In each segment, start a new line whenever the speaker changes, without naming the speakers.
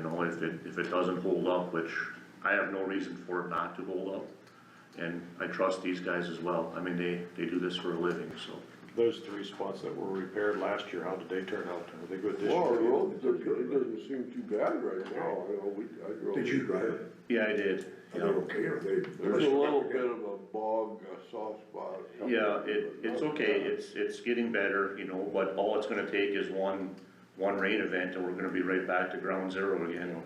if it, if it doesn't hold up, which I have no reason for it not to hold up. And I trust these guys as well, I mean, they, they do this for a living, so.
Those three spots that were repaired last year, how did they turn out? Are they good this year?
Well, the road, it doesn't seem too bad right now, I know, we, I drove.
Did you drive it?
Yeah, I did,
Are
you
they
know.
okay, or they?
There's a little bit of a bog, a soft spot.
Yeah, it, it's okay, it's, it's getting better, you know, but all it's gonna take is one, one rain event and we're gonna be right back to ground zero again.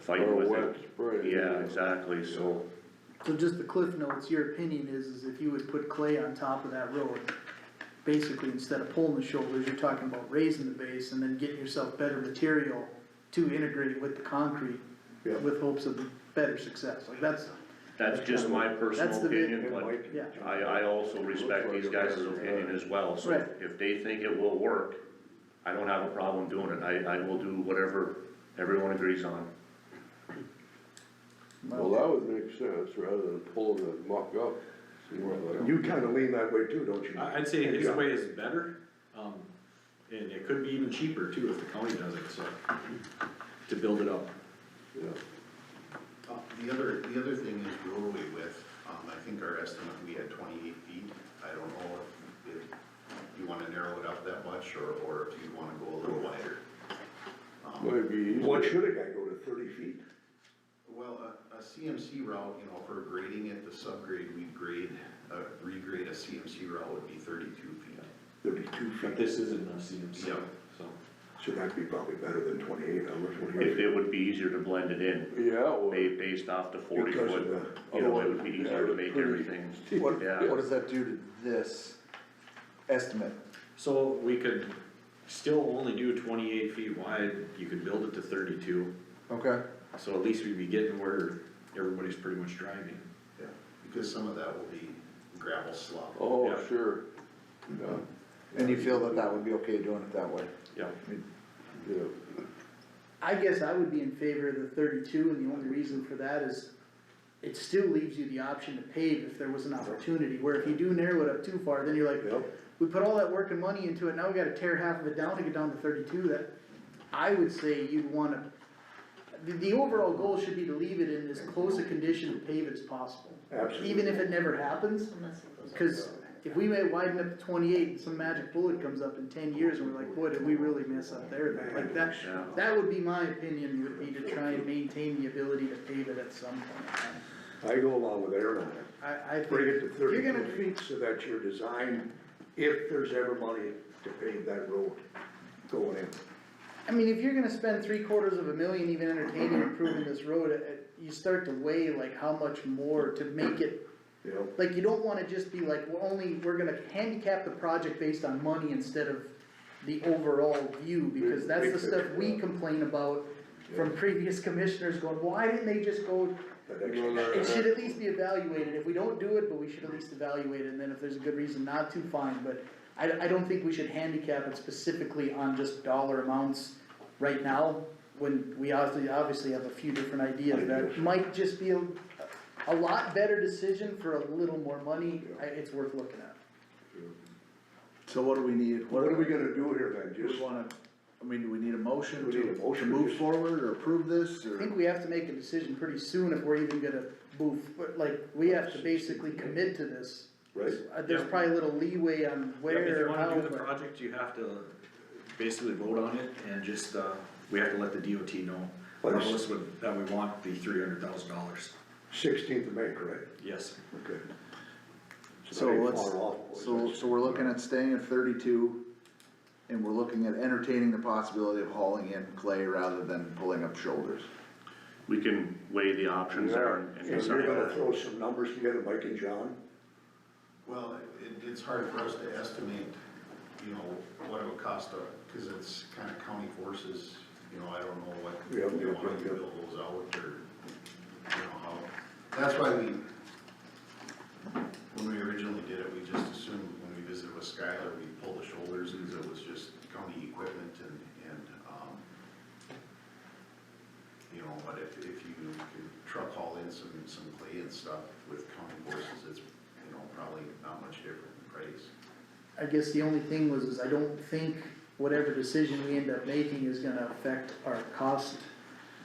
Fighting
Or a
with
wet
it.
spray.
Yeah, exactly, so,
So just the cliff notes, your opinion is, is if you would put clay on top of that road, basically instead of pulling the shoulders, you're talking about raising the base and then getting yourself better material to integrate with the concrete
Yeah.
with hopes of better success, like that's,
that's just my
That's
personal
the bit-
opinion, but.
yeah.
I, I also respect these guys'
uh,
opinion as well, so
Right.
if they think it will work, I don't have a problem doing it, I, I will do whatever everyone agrees on.
Well, that would make sense, rather than pulling the muck up. See where that-
You kinda lean that way too, don't you?
I- I'd say his
Yeah.
way is better, um, and it could be even cheaper too if the county does it, so, to build it up.
Yeah.
Uh, The other, the other thing is roadway width, um, I think our estimate, we had twenty-eight feet, I don't know if, if you wanna narrow it up that much, or, or if you wanna go a little wider. Um,
Might be easier.
What should a guy go to, thirty feet?
Well, a, a CMC route, you know, for grading it, the subgrade, we'd grade, uh, regrade a CMC route would be thirty-two feet.
There'd be two
But
feet,
this isn't a CMC,
Yeah.
so.
so that'd be probably better than twenty-eight, I was
It,
wondering.
it would be easier to blend it in,
Yeah, well,
ba- based off the forty
Because of
foot,
the-
you know, it would be easier to make
Yeah.
everything,
What,
Yeah.
what does that do to this estimate?
So we could still only do twenty-eight feet wide, you could build it to thirty-two,
Okay,
so at least we'd be getting where everybody's pretty much driving.
Yeah. Because some of that will be gravel slop.
oh,
Yeah.
sure, yeah,
and you feel that that would be okay doing it that way?
Yeah.
yeah.
I guess I would be in favor of the thirty-two, and the only reason for that is it still leaves you the option to pave if there was an opportunity, where if you do narrow it up too far, then you're like,
Yep.
we put all that work and money into it, now we gotta tear half of it down to get down to thirty-two, that, I would say you'd wanna, the, the overall goal should be to leave it in as close a condition to pave as possible.
Absolutely.
Even if it never happens, cause if we may widen up to twenty-eight, and some magic bullet comes up in ten years, and we're like, boy, did we really mess up there, That- like that,
Yeah.
that would be my opinion, would be to try and maintain the ability to pave it at some point.
I go along with Aaron on that.
I, I think.
Bring it to
if you're gonna-
thirty-two feet so that your design, if there's ever money to pave that road going in.
I mean, if you're gonna spend three quarters of a million even entertaining improving this road, it- it- you start to weigh like how much more to make it,
You know,
like you don't wanna just be like, we're only, we're gonna handicap the project based on money instead of the overall view, because that's the stuff we complain about from previous commissioners going, why didn't they just go,
that extra.
No, no,
it should at least be evaluated, if we don't do it, but we should at least evaluate it, and then if there's a good reason not to, fine, but I, I don't think we should handicap it specifically on just dollar amounts right now, when we obviously, obviously have a few different ideas, that might just be a, a lot better decision for a little more money, I, it's worth looking at.
So what do we need?
What are we gonna do here
Do
then,
we
just,
wanna, I mean, do we need a motion
We need a
to, to
motion,
move
yes.
forward or approve this,
I
or?
think we have to make a decision pretty soon if we're even gonna move, but like, we have to basically commit to this.
right?
Uh, There's probably a little leeway on
Yeah,
where.
If you
how,
wanna do the
but-
project, you have to basically vote on it and just, uh, we have to let the DOT know.
Well,
Tell
there's-
us what- that we want the three hundred thousand dollars,
Sixteenth of May, correct?
yes.
Okay.
So
Not even
let's,
far off, boys.
so, so we're looking at staying at thirty-two, and we're looking at entertaining the possibility of hauling in clay rather than pulling up shoulders.
we can weigh the options there and. and
And you're
decide.
gonna throw some numbers together, Mike and John?
Well, it, it's hard for us to estimate, you know, what it would cost, uh, cause it's kinda county forces, you know, I don't know what,
Yeah,
you know,
yeah,
how you
yeah.
build those out, or, you know, how, that's why we, when we originally did it, we just assumed when we visited with Skylar, we pulled the shoulders, cause it was just county equipment and, and, um, you know, but if, if you can truck haul in some, some clay and stuff with county forces, it's, you know, probably not much different in price.
I guess the only thing was, is I don't think whatever decision we end up making is gonna affect our cost